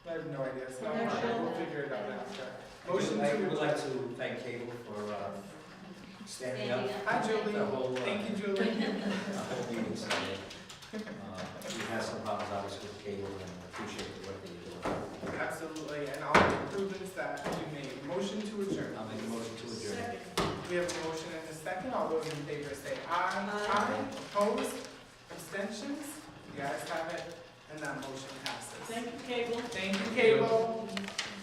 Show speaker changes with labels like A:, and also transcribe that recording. A: no idea, so
B: They're
A: fine, we'll
B: children.
A: figure it out after.
C: I would
A: Motion
C: like-
A: to
C: would like
A: adjourn.
C: to thank Cable for uh, standing up
B: Standing
A: Hi,
C: the
A: Julie.
C: whole, uh,
A: Thank you, Julie.
C: the whole meeting Sunday. Uh, We had some problems obviously with Cable and appreciate the work that you're
A: Absolutely, and all the improvements that you made. Motion to adjourn.
C: doing. I'll make a motion to adjourn.
A: We have a motion and a second. All those in favor say aye.
B: Aye.
A: Opposed? Abstentions? You guys have it, and that motion passes.
B: you, Cable.
A: Thank you, Cable.